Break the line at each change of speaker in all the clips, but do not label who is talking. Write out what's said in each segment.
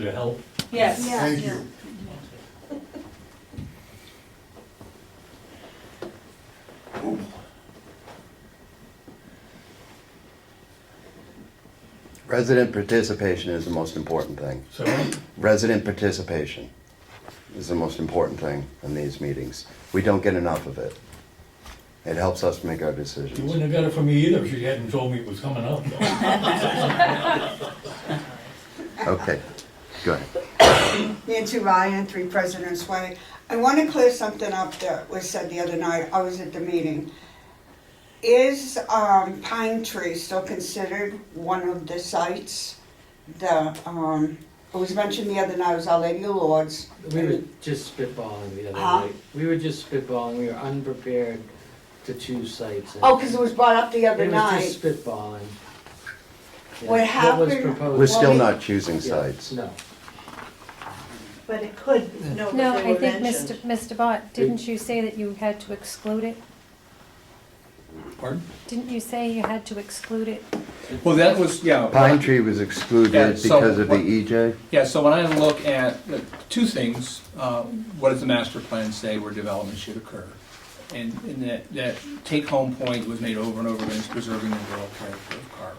To help.
Yes.
Yeah.
Thank you.
Resident participation is the most important thing.
So,
Resident participation is the most important thing in these meetings. We don't get enough of it. It helps us make our
you
decisions.
wouldn't have got it from me either if she hadn't told me it was coming up.
Okay, go ahead.
Nancy Ryan, Three Presidents Way. I want to clear something up that was said the other night. I was at the meeting. Is um, Pine Tree still considered one of the sites? The, um, it was mentioned the other night, it was Our Lady of Lords.
We were just spitballing the other
Huh?
night. We were just spitballing, we were unprepared to choose sites. and-
Oh, because it was brought up the other
It was just
night.
spitballing. Yeah,
What
was
happened-
proposed-
We're still
Well,
not choosing
Yeah,
sites.
No,
But it could, no, but
No,
they
I
were
think, Mr.
mentioned.
Mr. Bott, didn't you say that you had to exclude it?
Pardon?
Didn't you say you had to exclude it?
Well, that was, yeah.
Pine Tree was
Yeah,
excluded
so
because of the E
what-
EJ.
Yeah, so when I look at the two things, uh, what does the master plan say where development should occur? And, and that, that take-home point was made over and over again, is preserving the rural character of Carver.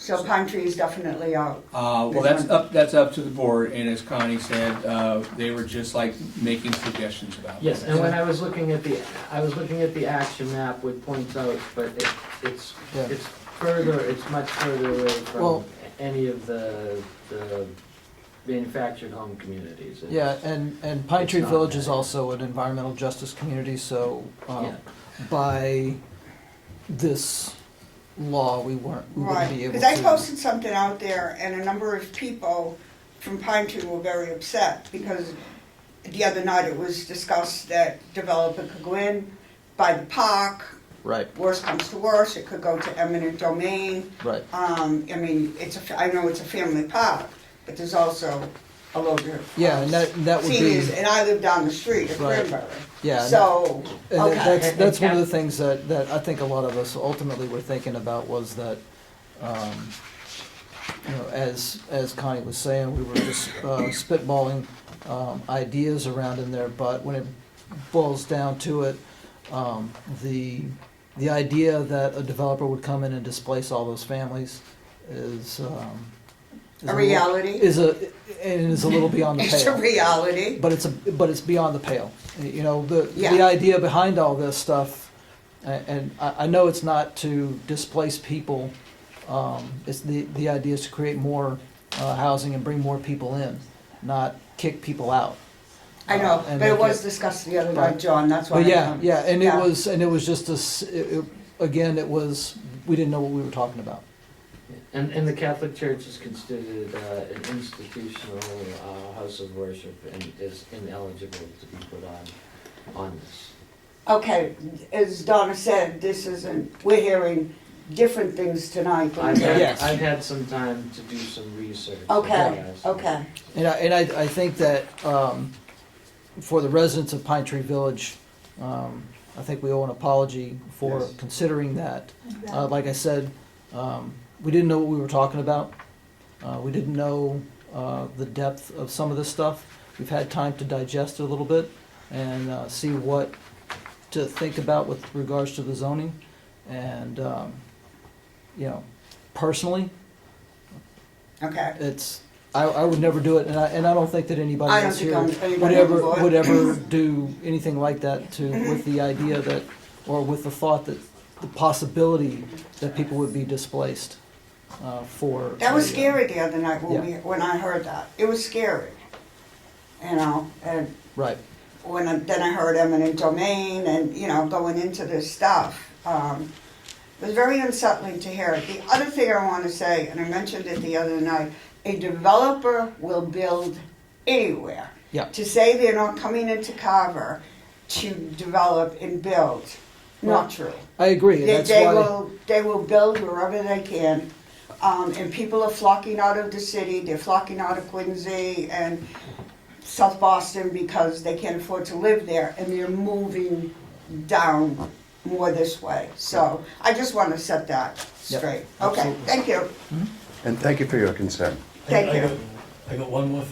So Pine Tree is definitely out.
Uh, well, that's up, that's up to the board, and as Connie said, uh, they were just like making suggestions about.
yes,
it.
and when I was looking at the, I was looking at the action map with points out, but it, it's,
Yeah.
it's further, it's much further away from
Well-
any of the, the manufactured home communities. It's-
Yeah, and, and Pine
It's
Tree
not
Village is
bad.
also an environmental justice community, so,
Yeah.
um, by this law, we weren't, we wouldn't
Right,
be able to.
because I posted something out there and a number of people from Pine Tree were very upset because the other night it was discussed that developer could go in by the park,
Right,
worst comes to worst, it could go to eminent domain.
right.
Um, I mean, it's a, I know it's a family park, but there's also a load of.
Yeah, and that, that would be,
Seniors, and I live down the street at
Right.
Cranberry.
yeah, and that-
So,
and that-
okay,
that's, that's one of the things that, that I think a lot of us ultimately were thinking about was that, um, you know, as, as Connie was saying, we were just uh, spitballing um, ideas around in there, but when it boils down to it, um, the, the idea that a developer would come in and displace all those families is, um, is
a
little-
reality,
Is a, and is a little beyond the pale.
it's a reality.
But it's a, but it's beyond the pale. You know, the, the
Yeah.
idea behind all this stuff, a- and I, I know it's not to displace people. Um, it's the, the idea is to create more, uh, housing and bring more people in, not kick people out.
I know,
Uh, and
but it
make
was discussed the other night,
Right.
John, that's why.
But
I
yeah,
come.
yeah, and it was, and it was just a s it- it- again, it was, we didn't know what we were talking about.
And, and the Catholic Church is considered uh, an institutional uh, house of worship and is ineligible to be put on, on this.
Okay, as Donna said, this isn't, we're hearing different things tonight. than-
I've had,
Yes.
I've had some time to do some research.
Okay, okay.
And I, and I, I think that, um, for the residents of Pine Tree Village, um, I think we owe an apology for
Yes.
considering that. Uh, like I said, um, we didn't know what we were talking about. Uh, we didn't know, uh, the depth of some of this stuff. We've had time to digest it a little bit and, uh, see what to think about with regards to the zoning. And, um, you know, personally,
Okay.
it's, I, I would never do it, and I, and I don't think that anybody
I don't
else
think
here
I'm-
would
anybody on the
ever,
board.
would ever do anything like that to, with the idea that, or with the thought that, the possibility that people would be displaced, uh, for.
That was
a, uh,
scary the other night when we, when I heard that. It was scary. You know, and
Right,
when, I- then I heard eminent domain and, you know, going into this stuff. Um, It was very unsettling to hear. The other thing I want to say, and I mentioned it the other night, a developer will build anywhere.
yeah,
to say they're not coming into Carver to develop and build, not true.
I agree, and
They,
that's
they
why,
will, they will build wherever they can, um, and people are flocking out of the city, they're flocking out of Quincy and South Boston because they can't afford to live there, and they're moving down more this way. So I just want to set that
Yep,
straight. Okay, thank you,
And thank you for your concern.
thank
I
you.
got- I got one more thing